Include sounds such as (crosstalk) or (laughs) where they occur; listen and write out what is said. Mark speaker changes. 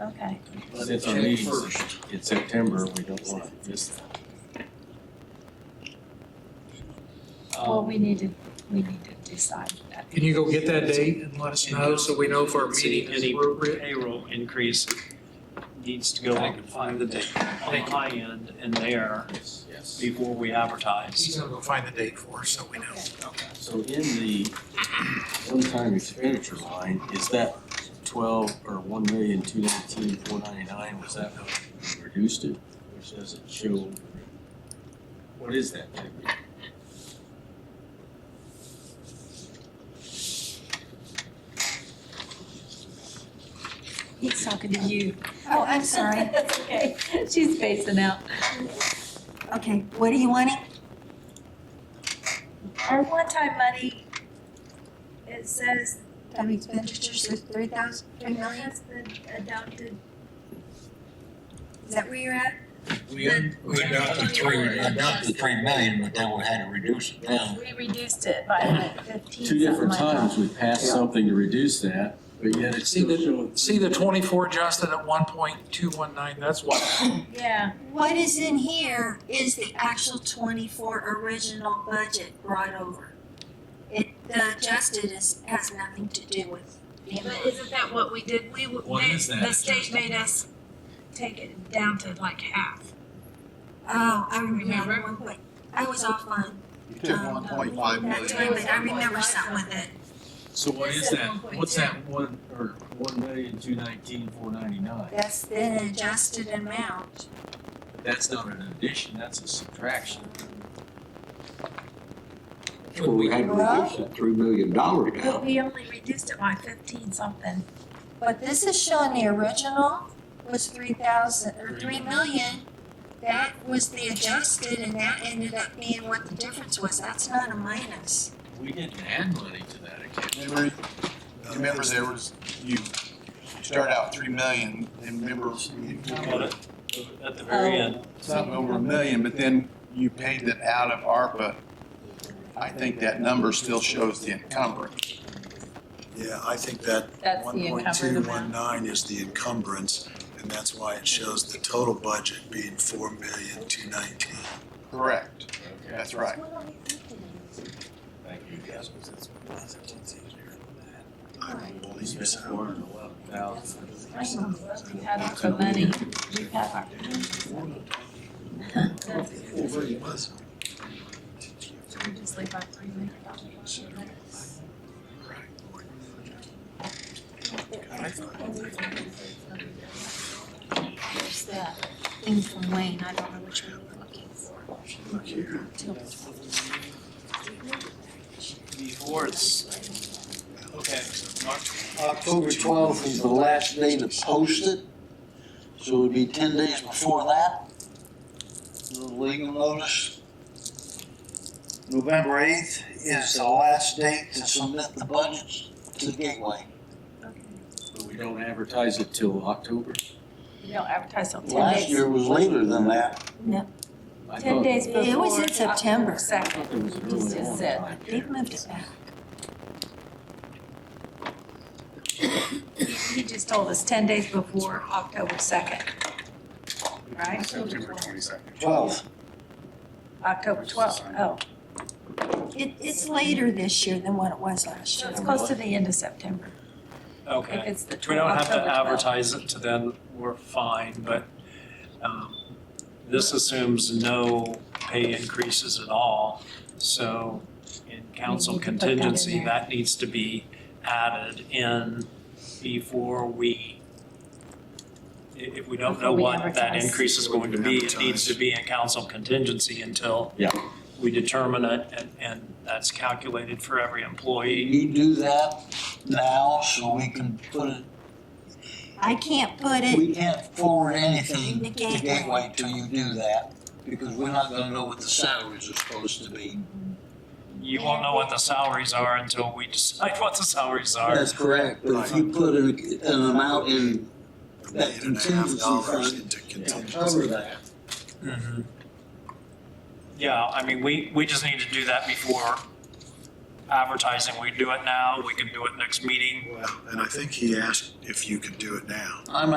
Speaker 1: Okay,
Speaker 2: But
Speaker 3: Since
Speaker 2: it's
Speaker 3: our
Speaker 2: checked
Speaker 3: meeting's-
Speaker 2: first.
Speaker 3: in September, we don't wanna miss that.
Speaker 1: well,
Speaker 2: Um,
Speaker 1: we need to, we need to decide that.
Speaker 4: Can you go get that date and let us know so we know if our meeting is
Speaker 5: Any
Speaker 4: appropriate?
Speaker 5: payroll increase needs to go
Speaker 2: I
Speaker 5: on
Speaker 2: can find the date.
Speaker 5: the high end in there
Speaker 3: Yes, yes.
Speaker 5: before we
Speaker 4: He's
Speaker 5: advertise.
Speaker 4: gonna go find the date for us so we know.
Speaker 3: So in the one-time expenditure line, is that twelve or one million, two nineteen, four ninety-nine, was that how we reduced it? Which doesn't show, what is that? figure?
Speaker 1: He's talking to
Speaker 6: (laughs)
Speaker 1: you. Oh, I'm sorry.
Speaker 6: That's okay.
Speaker 1: She's facing out.
Speaker 6: Okay, what are you wanting?
Speaker 1: Our one-time money, it says
Speaker 6: Time expenditures of three thousand, three million?
Speaker 1: has been adopted.
Speaker 6: Is that where you're at?
Speaker 7: We, we adopted three, we adopted three million, but then we had to reduce it down.
Speaker 1: We reduced it by like fifteen.
Speaker 3: Two different
Speaker 1: something like
Speaker 3: times we passed something to reduce that, but yet it's
Speaker 4: See
Speaker 3: still
Speaker 4: the-
Speaker 3: showing.
Speaker 4: See the twenty-four, Justin, at one point two one nine, that's why.
Speaker 1: that. Yeah,
Speaker 6: What is in here is the actual twenty-four original budget brought over. It, the adjusted is, has nothing to do with. the
Speaker 8: But isn't that what we did? We, w-
Speaker 3: What
Speaker 8: they-
Speaker 3: is that
Speaker 8: the state made us take it down to like half.
Speaker 6: Oh, I remember
Speaker 8: Remember?
Speaker 6: one point. I was offline Um,
Speaker 7: You took one point five
Speaker 6: that
Speaker 7: million.
Speaker 6: time, but I remember something with it.
Speaker 3: So what
Speaker 8: It
Speaker 3: is
Speaker 8: said
Speaker 3: that,
Speaker 8: 1.2.
Speaker 3: what's that one, or one million, two nineteen, four ninety-nine?
Speaker 6: That's the adjusted amount.
Speaker 3: That's not an addition, that's a subtraction.
Speaker 9: Well, we had to reduce that three million dollars
Speaker 1: but
Speaker 9: down.
Speaker 1: we only reduced it by fifteen something.
Speaker 6: But this is showing the original was three thousand, or three million. That was the adjusted and that ended up being what the difference was. That's not a minus.
Speaker 3: We didn't add money to that account.
Speaker 7: Remember, remember there was, you start out three million, and remember, you
Speaker 5: But
Speaker 7: had
Speaker 5: at- At the very end,
Speaker 7: something over a million, but then you paid that out of ARPA. I think that number still shows the encumbrance.
Speaker 10: Yeah, I think that
Speaker 1: That's
Speaker 10: one
Speaker 1: the
Speaker 10: point
Speaker 1: encumbered
Speaker 10: two one
Speaker 1: amount.
Speaker 10: nine is the encumbrance, and that's why it shows the total budget being four million two nineteen.
Speaker 7: Correct. That's right.
Speaker 3: Thank you, guys.
Speaker 10: I don't
Speaker 3: We
Speaker 10: believe
Speaker 3: spent
Speaker 10: so.
Speaker 3: four hundred and eleven thousand.
Speaker 1: I know, but we had our money, we had our. So we just leave our three million dollars. There's that thing from Wayne, I don't know which one you're looking for.
Speaker 10: Look here,
Speaker 5: before it's, okay, March,
Speaker 11: October twelfth is the last day to post it, so it would be ten days before that. The legal notice. November eighth is the last date to submit the budgets to Gateway.
Speaker 3: But we don't advertise it till October?
Speaker 1: We don't advertise till ten
Speaker 11: Last
Speaker 1: days.
Speaker 11: year was later than that.
Speaker 3: I
Speaker 1: Ten
Speaker 3: thought-
Speaker 1: days before.
Speaker 6: It was in September.
Speaker 1: October
Speaker 3: I
Speaker 1: Second.
Speaker 3: thought it was
Speaker 1: It's
Speaker 3: early
Speaker 1: just
Speaker 3: on.
Speaker 1: said,
Speaker 3: like,
Speaker 6: They've moved it back.
Speaker 1: He just told us ten days before October second. Right?
Speaker 11: Twelve.
Speaker 1: October twelfth, oh.
Speaker 6: It, it's later this year than what it was last
Speaker 1: So
Speaker 6: year.
Speaker 1: it's close to the end of September. If
Speaker 5: okay.
Speaker 1: it's the
Speaker 5: If we don't have to
Speaker 1: October 12th.
Speaker 5: advertise it to them, we're fine, but um, this assumes no pay increases at all. So in council
Speaker 1: need to put that in
Speaker 5: contingency,
Speaker 1: there.
Speaker 5: that needs to be added in before we, i- if we don't know
Speaker 1: Before we
Speaker 5: what that
Speaker 1: advertise.
Speaker 5: increase is going to be, it needs to
Speaker 10: Advertise.
Speaker 5: be in council contingency until
Speaker 3: Yeah.
Speaker 5: we determine it, and, and that's calculated for every employee.
Speaker 11: You do that now so we can put it,
Speaker 6: I can't put it,
Speaker 11: we can't forward anything to Gateway till you do that. Because we're not gonna know what the salaries are supposed to be.
Speaker 5: You won't know what the salaries are until we decide (laughs) what the salaries are.
Speaker 11: That's correct, but if you put an, an amount in
Speaker 10: a
Speaker 11: that
Speaker 10: million and a half
Speaker 11: contingency
Speaker 10: dollars
Speaker 11: fund,
Speaker 10: into
Speaker 11: it'll
Speaker 10: contingency.
Speaker 11: cover that.
Speaker 5: Mhm. Yeah, I mean, we, we just need to do that before advertising. We do it now, we can do it next meeting.
Speaker 10: Well, And I think he asked if you could do it now.
Speaker 11: I'm